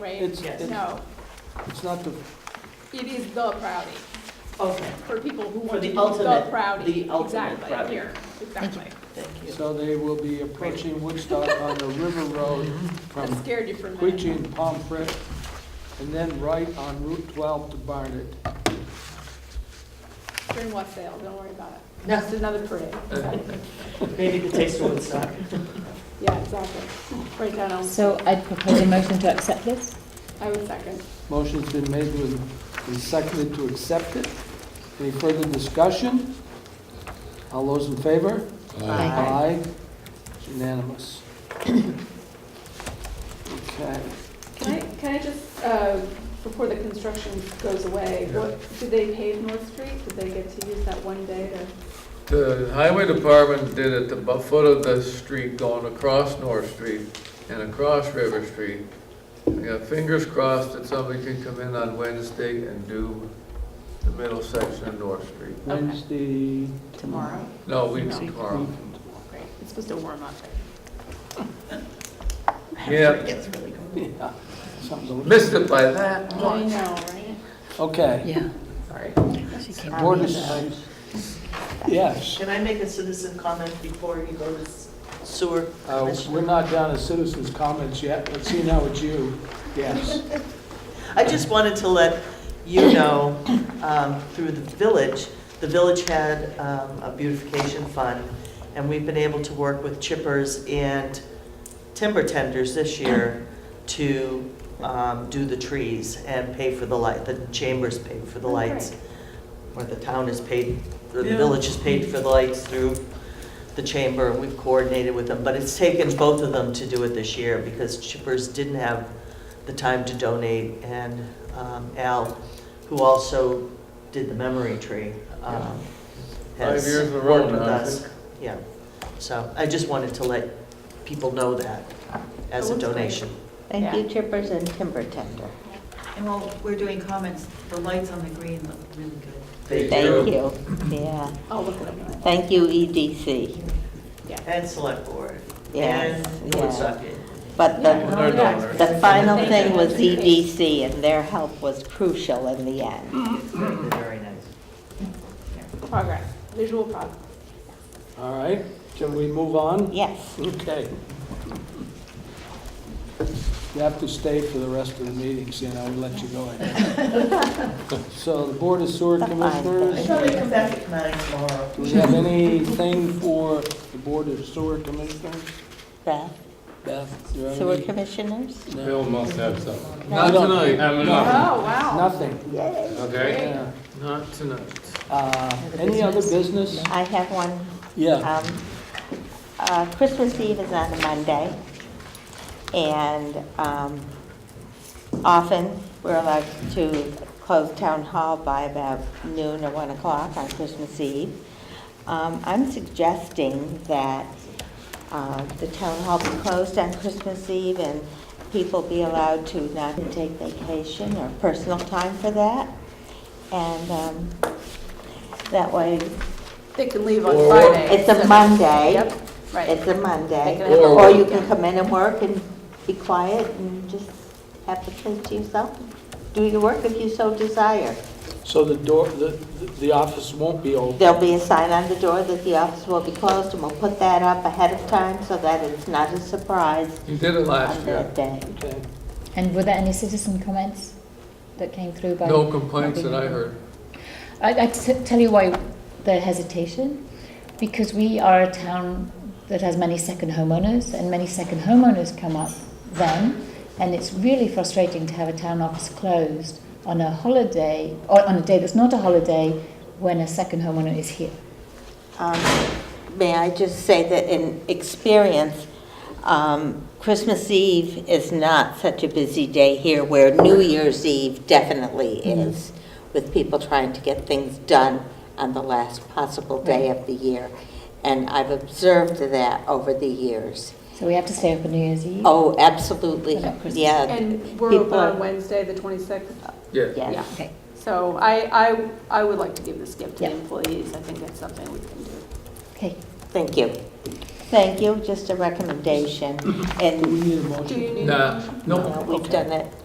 right? It's, Yes. it's- No, it's not the, it is the Proudy, Okay, for people who For want the to be ultimate- the Proudy. the ultimate Proudy. Exactly, here, exactly. thank you. so they will be approaching Woodstock on the River Road That from scared you for a minute. Queechee and Pomfret, and then right on Route 12 to Barnet. During what sale, don't worry about it. No. It's another parade, exactly. Maybe the taste of Woodstock. Yeah, exactly. Right down on, So I'd propose a motion to accept this. I would second. Motion's been made with, and seconded to accept it. Any further discussion? All those in favor? Aye. Aye. It's unanimous. Okay. Can I, can I just, uh, before the construction goes away, what, did they pave North Street? Did they get to use that one day to? The highway department did at the bu- foot of the street going across North Street and across River Street. We got fingers crossed that somebody can come in on Wednesday and do the middle section of North Street. Wednesday. Tomorrow. No, we do tomorrow. Oh, Great, it's supposed to warm up. Yeah, Yeah, something. missed it by that I much. know, right? Okay. Yeah. Sorry. Board is- Yes, Can I make a citizen comment before you go to s- sewer? Uh, we're commissioner? not down to citizens' comments yet. Let's see now it's you. Yes. I just wanted to let you know, um, through the village, the village had um, a beautification fund, and we've been able to work with chippers and timber tenders this year to um, do the trees and pay for the light, the chambers paid for the Oh, great. lights. Or the town is paid, or the Yeah. village is paid for the lights through the chamber, and we've coordinated with them. But it's taken both of them to do it this year, because chippers didn't have the time to donate, and um, Al, who also did the memory tree, um, has Five years in a row worked with now, I us. think. Yeah, so I just wanted to let people know that as Oh, a that's great. donation. Thank you, chippers and timber tender. And while we're doing comments, the lights on the green look really good. Thank Thank you, yeah. I'll look it up. in a minute. Thank you, E EDC, And select board. yes, And yeah. Woodstock. But the, Our donor. the final thing was EDC, and their help was crucial in the end. They're very nice. Progress, visual progress. All right, can we move on? Yes, Okay. You have to stay for the rest of the meetings, and I will let you go ahead. So the Board of Sewer I Commissioners, thought they'd come back at nine tomorrow. do we have anything for the Board of Sewer Commissioners? the Beth, do you have Uh, sewer any? commissioners? Bill must have something. Not tonight, Um, Oh, no. wow. Nothing. Okay. Yeah. not tonight. Uh, Any other business? I have one Yeah. Um, uh, Christmas Eve is on a Monday, and um, often we're allowed to close town hall by about noon or 1 o'clock on Christmas Eve. Um, I'm suggesting that uh, the town hall be closed on Christmas Eve and people be allowed to not take vacation or personal time for that. And um, that way, They can leave on Or- Friday. it's a Monday. Yep, right. It's a Monday, They can have a or you weekend. can come in and work and be quiet and just have the place to yourself. Do your work if you so desire. So the door, the, the office won't be open? There'll be a sign on the door that the office will be closed, and we'll put that up ahead of time so that it's not a surprise You did it last on year. that day. Okay. And were there any citizen comments that came through by? No complaints that I heard. I, I t- tell you why the hesitation, because we are a town that has many second homeowners, and many second homeowners come up then, and it's really frustrating to have a town office closed on a holiday or on a day that's not a holiday when a second homeowner is here. Um, May I just say that in experience, um, Christmas Eve is not such a busy day here where New Year's Eve definitely is, with people trying to get things done on the last possible day of the year. And I've observed that over the years. So we have to stay open New Year's Eve. Oh, absolutely, What about Christmas? yeah, And we're People open on are- Wednesday, the 26th. Yeah. yes. Okay. So I, I, I would like to give this gift to the Yeah. employees. I think that's something we can do. Okay. Thank you. Thank you, just a recommendation. Do we And need a Do you motion? need? Nah, no, we've done it.